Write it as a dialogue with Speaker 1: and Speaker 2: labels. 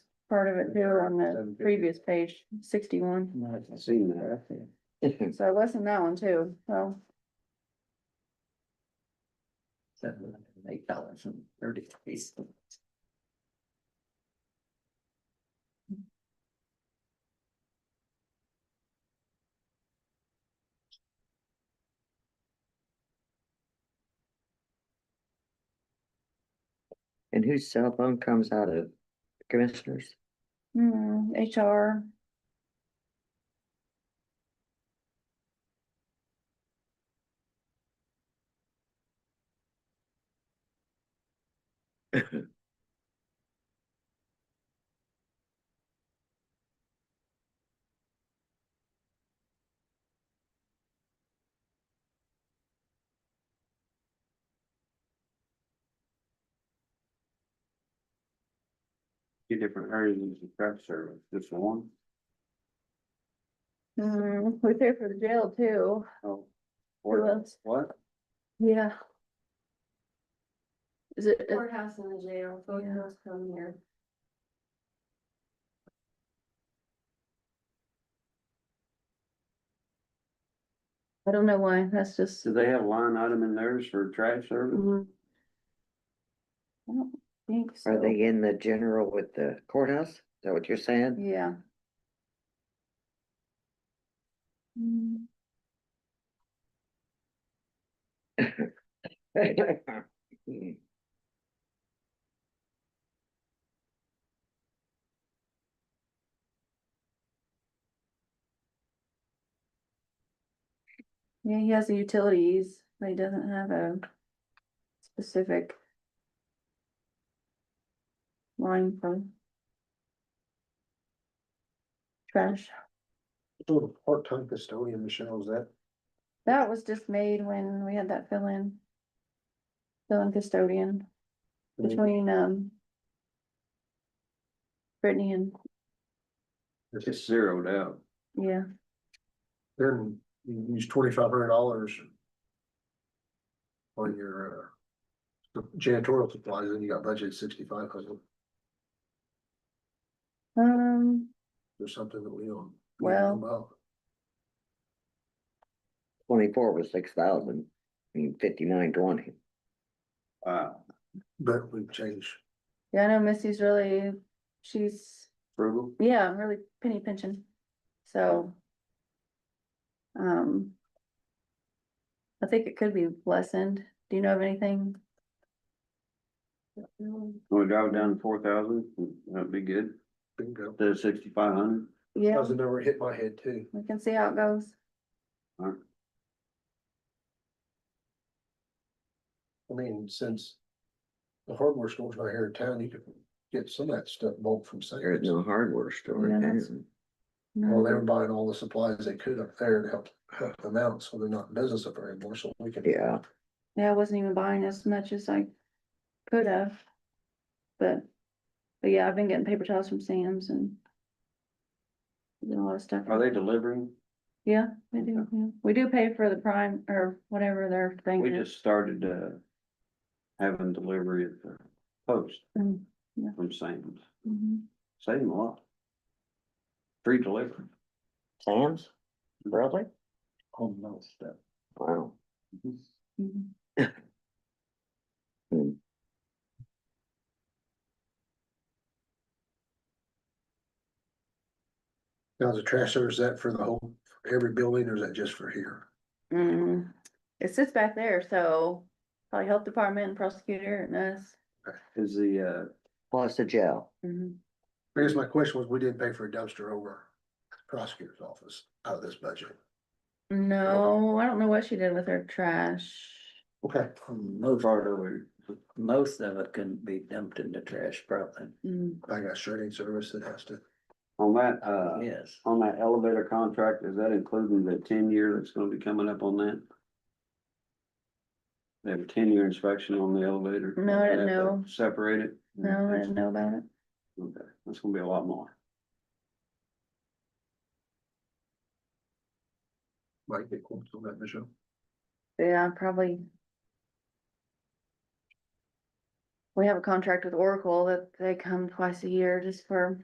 Speaker 1: part of it too on the
Speaker 2: Seven fifty.
Speaker 1: previous page, sixty-one.
Speaker 2: Not seen that.
Speaker 1: So I listened to that one too, so.
Speaker 2: Seven, eight dollars and thirty cents.
Speaker 3: And whose cell phone comes out of commissioners?
Speaker 1: Hmm, HR,
Speaker 2: Two different areas of craft service, just one.
Speaker 1: hmm, we pay for the jail too.
Speaker 2: Oh.
Speaker 1: Who else?
Speaker 2: What?
Speaker 1: Yeah. Is it, uh, it-
Speaker 4: Courthouse and the jail, both of
Speaker 1: Yeah.
Speaker 4: those come here.
Speaker 1: I don't know why, that's just,
Speaker 2: Do they have a line item in theirs for trash service?
Speaker 1: Mhm. I don't think so.
Speaker 3: Are they in the general with the courthouse? Is that what you're saying?
Speaker 1: Yeah. Mm, Yeah, he has the utilities, but he doesn't have a specific line for trash.
Speaker 5: Sort of part-time custodian, Michelle, is that,
Speaker 1: That was just made when we had that fill in. Fill in custodian
Speaker 5: Mhm.
Speaker 1: between, um. Brittany and,
Speaker 5: is
Speaker 2: It's
Speaker 5: this,
Speaker 2: zeroed out.
Speaker 1: yeah,
Speaker 5: then you use twenty-five hundred dollars on your uh, janitorial supplies, and you got budgeted sixty-five hundred,
Speaker 1: um,
Speaker 5: there's something that we own.
Speaker 1: Well-
Speaker 3: Twenty-four was six thousand, I mean fifty-nine twenty.
Speaker 2: Uh,
Speaker 5: But we've changed,
Speaker 1: yeah, I know Missy's really, she's,
Speaker 2: frugal.
Speaker 1: yeah, really penny pinching, so. Um. I think it could be lessened, do you know of anything?
Speaker 2: Can we drive it down to four thousand? That'd be good.
Speaker 5: bingo,
Speaker 2: The sixty-five hundred.
Speaker 5: that
Speaker 1: Yeah,
Speaker 5: was the number that hit my head too.
Speaker 1: we can see how it goes,
Speaker 5: I mean, since the hardware store's not here in town, you could get some of that stuff bulk from
Speaker 3: There is
Speaker 5: Sam's.
Speaker 3: no hardware store in
Speaker 1: Yeah, that's-
Speaker 3: town.
Speaker 5: Well, they were buying all the supplies they could up there to help cut them out, so they're not in business up there anymore, so we can.
Speaker 3: Yeah,
Speaker 1: yeah, I wasn't even buying as much as I could have. But, but yeah, I've been getting paper towels from Sam's and. getting a lot of stuff.
Speaker 2: Are they delivering?
Speaker 1: Yeah, we do, yeah. we do pay for the prime or whatever their thing
Speaker 2: We
Speaker 1: is.
Speaker 2: just started, uh, having delivery at the post
Speaker 1: Mm, yeah.
Speaker 2: from Sam's.
Speaker 1: Mhm.
Speaker 2: Same a lot. Free delivery.
Speaker 3: Sam's, really?
Speaker 2: Home no stuff.
Speaker 3: Wow.
Speaker 1: Mhm.
Speaker 5: Now, is the trash service that for the whole, for every building, or is that just for here?
Speaker 1: Mm, it sits back there, so probably health department and prosecutor and us.
Speaker 2: Is the, uh,
Speaker 3: Plus the jail.
Speaker 1: Mhm.
Speaker 5: I guess my question was, we didn't pay for a dumpster over at the prosecutor's office out of this budget.
Speaker 1: No, I don't know what she did with her trash.
Speaker 5: Okay.
Speaker 6: Most part of it, most of it couldn't be dumped into trash probably,
Speaker 1: Mm,
Speaker 5: I got shredding service that has to,
Speaker 2: on that, uh,
Speaker 6: yes.
Speaker 2: on that elevator contract, is that including the ten year that's gonna be coming up on that? They have a ten year inspection on the elevator.
Speaker 1: No, I didn't
Speaker 2: They have to
Speaker 1: know.
Speaker 2: Separate it.
Speaker 1: No, I didn't know about it.
Speaker 2: Okay, that's gonna be a lot more.
Speaker 5: might get quotes on that, Michelle.
Speaker 1: Yeah, probably. We have a contract with Oracle that they come twice a year just for